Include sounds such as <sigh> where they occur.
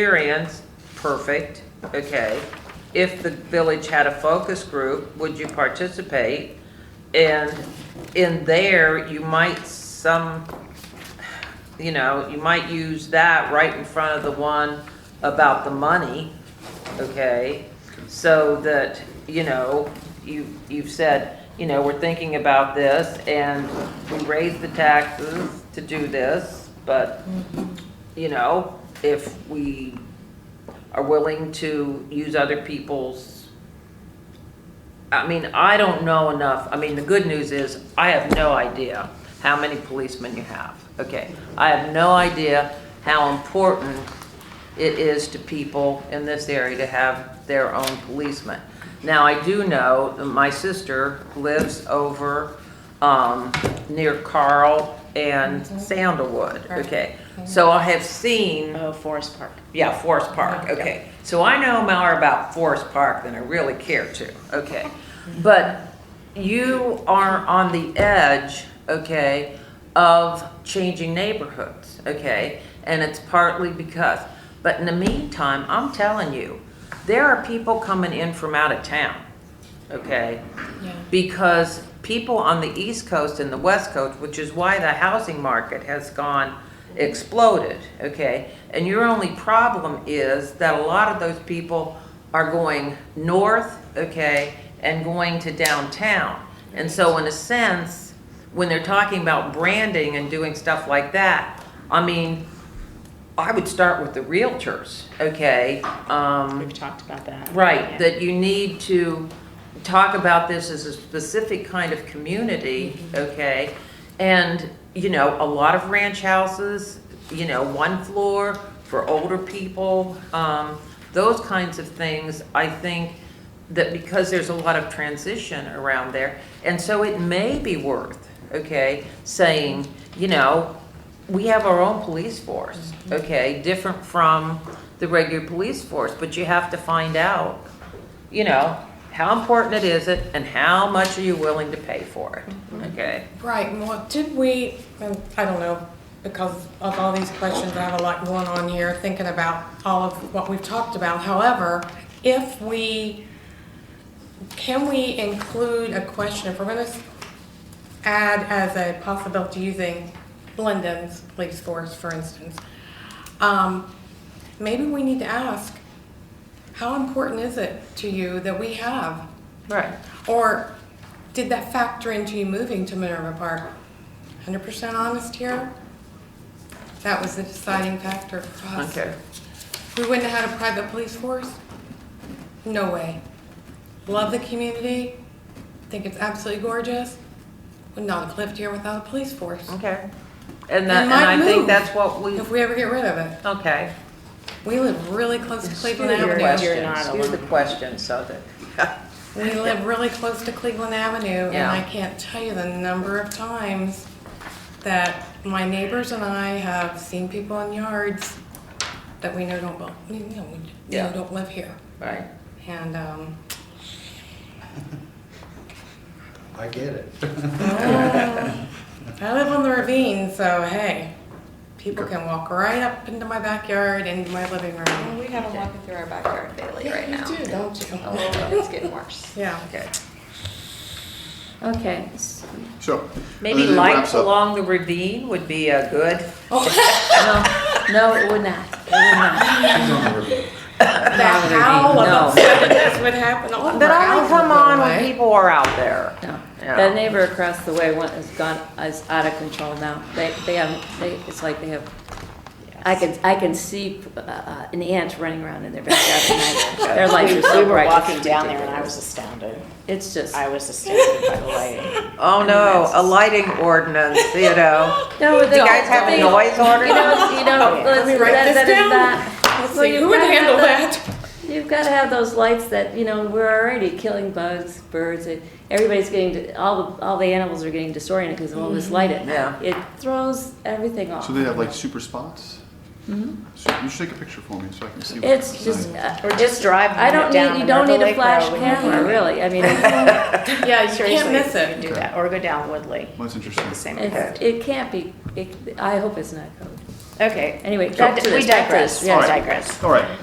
experience, perfect, okay. If the village had a focus group, would you participate? And in there, you might some, you know, you might use that right in front of the one about the money, okay? So that, you know, you, you've said, you know, we're thinking about this and we raise the taxes to do this, but, you know, if we are willing to use other people's, I mean, I don't know enough, I mean, the good news is, I have no idea how many policemen you have, okay? I have no idea how important it is to people in this area to have their own policeman. Now, I do know that my sister lives over, um, near Carl and Sandalwood, Right. okay? So I have seen Oh, Forest Park. yeah, Forest Park, okay. So I know more about Forest Park than I really care to, okay. But you are on the edge, okay, of changing neighborhoods, okay? And it's partly because, but in the meantime, I'm telling you, there are people coming in from out of town, okay? Yeah. because people on the East Coast and the West Coast, which is why the housing market has gone exploded, okay? And your only problem is that a lot of those people are going north, okay, and going to downtown. And so in a sense, when they're talking about branding and doing stuff like that, I mean, I would start with the realtors, okay? Um, We've talked about that. Right, Yeah. that you need to talk about this as a specific kind of community, okay? And, you know, a lot of ranch houses, you know, one floor for older people, um, those kinds of things, I think that because there's a lot of transition around there, and so it may be worth, okay, saying, you know, we have our own police force, Mm-hmm. okay, different from the regular police force, but you have to find out, you know, how important it is it and how much are you willing to pay for Mm-hmm. it, okay? Right, and what did we, and I don't know, because of all these questions, I have a lot going on here, thinking about all of what we've talked about. However, if we, can we include a question, if we're gonna s- add as a possibility using Blendon's police force, for instance, um, maybe we need to ask, how important is it to you that we have Right. or did that factor into you moving to Minerva Park? Hundred percent honest here? That was the deciding factor for us. Okay, We wouldn't have had a private police force? No way. Love the community, think it's absolutely gorgeous, would not have lived here without a police force. okay. And We that, and might I think move. that's what we, If we ever get rid of it. okay. We live really close to Cleveland You're- Avenue. you're not Here's the alone. question, so that, <laughs> We live really close to Cleveland Avenue, and Yeah. I can't tell you the number of times that my neighbors and I have seen people in yards that we know don't, bel- we know, we know Yeah. don't live here. right? And, um, I get it. I live on the ravine, so hey, people can walk right up into my backyard, into my living room. We have a walking through our backyard daily right now. do, don't you? Oh, it's getting worse. Yeah. Okay. Okay. s- So. Maybe as it lights wraps up- along the ravine would be a good, No, no, it would not. It would not. That howl No. of upsetness would happen all over. that only houses come that on when way. people are out there. No. Yeah. That neighbor across the way went, has gone, is out of control now. They, they have, they, it's like they have, I can, I can see uh, uh, an ant running around <laughs> in their backyard at night. Their lights are We so were bright. walking it's down there and I was ridiculous. astounded. It's just, I was astounded <laughs> by the lighting. Oh no, a lighting ordinance, you know. no, Do they. you guys have a they- noise order? You know, <laughs> you know, Let me listen, write that, this that is down. not. Let's Well, see, you who would gotta have handle the- that? You've got to have those lights that, you know, we're already killing bugs, birds, and everybody's getting, all, the all the animals are getting disoriented because of all this light at night. It throws everything off. So they have like super spots? Mhm. Mm-hmm. So you should take a picture for me so I can see. what It's it's just, like. uh, Or just driving I don't down need, the you don't Myrtle need a Lake flash Road when you're camera, driving. really. I mean, it's- Yeah, you can't Seriously, miss you it. can Do that, or go down Woodley. Well, That's interesting. The same. it's, it can't be, it, I hope it's not code. Okay. Anyway, Back back to to- we this, back to digress, this, we yes. All right. digress. All right.